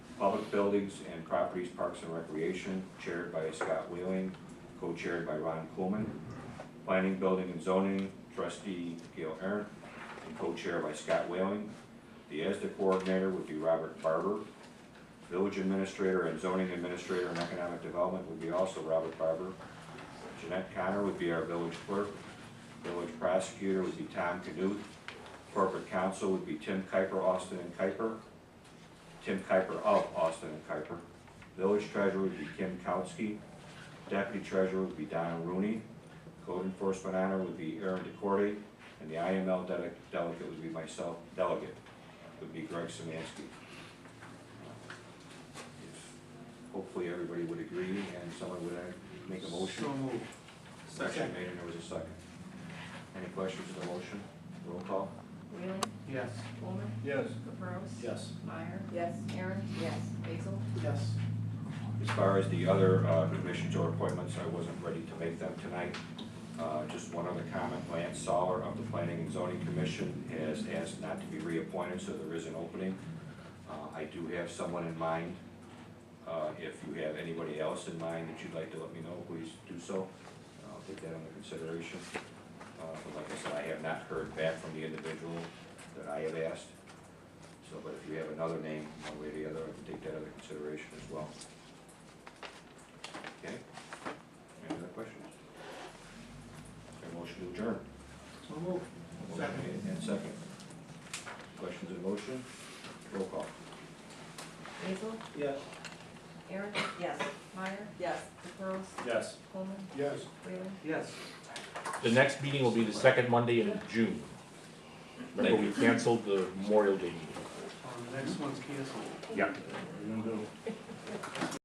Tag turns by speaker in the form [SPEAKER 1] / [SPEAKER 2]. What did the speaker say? [SPEAKER 1] Public Buildings and Properties, Parks and Recreation, chaired by Scott Wheeling, co-chaired by Ron Coolman. Planning, Building and Zoning, trustee Gail Aaron, and co-chair by Scott Whaling. The ESDA coordinator would be Robert Barber. Village administrator and zoning administrator and economic development would be also Robert Barber. Jeanette Connor would be our village clerk. Village prosecutor would be Tom Knuth. Corporate counsel would be Tim Kuiper, Austin and Kuiper. Tim Kuiper of Austin and Kuiper. Village treasurer would be Kim Kautsky. Deputy treasurer would be Donna Rooney. Code enforcement honor would be Aaron DeCordy, and the IML dele- delegate would be myself, delegate would be Greg Samansky. Hopefully, everybody would agree, and someone would uh, make a motion.
[SPEAKER 2] So moved.
[SPEAKER 1] Motion made, and there was a second. Any questions on the motion? Roll call?
[SPEAKER 3] Wheeling,
[SPEAKER 2] Yes.
[SPEAKER 3] Coleman,
[SPEAKER 2] Yes.
[SPEAKER 3] Capros.
[SPEAKER 4] Yes.
[SPEAKER 3] Meyer,
[SPEAKER 5] Yes.
[SPEAKER 3] Aaron. Yes. Basil.
[SPEAKER 2] Yes.
[SPEAKER 1] As far as the other uh, commissions or appointments, I wasn't ready to make them tonight. Uh, Just one other comment, Lance Soler of the Planning and Zoning Commission has asked not to be reappointed, so there is an opening. Uh, I do have someone in mind. Uh, If you have anybody else in mind that you'd like to let me know, please do so. I'll take that under consideration. Uh, But like I said, I have not heard back from the individual that I have asked. So, but if you have another name, one way or the other, I can take that under consideration as well. Okay, any other questions? Is there a motion to adjourn?
[SPEAKER 2] So moved.
[SPEAKER 1] Motion
[SPEAKER 2] Second.
[SPEAKER 1] made And second. Questions and motion? Roll call.
[SPEAKER 3] Basil,
[SPEAKER 2] Yes.
[SPEAKER 3] Aaron,
[SPEAKER 5] Yes.
[SPEAKER 3] Meyer,
[SPEAKER 5] Yes.
[SPEAKER 3] Capros,
[SPEAKER 4] Yes.
[SPEAKER 3] Coleman,
[SPEAKER 2] Yes.
[SPEAKER 3] Wheeling.
[SPEAKER 2] Yes.
[SPEAKER 6] The next meeting will be the second Monday in June. Remember, we canceled the Memorial Day meeting.
[SPEAKER 2] Um, the next one's canceled.
[SPEAKER 6] Yeah.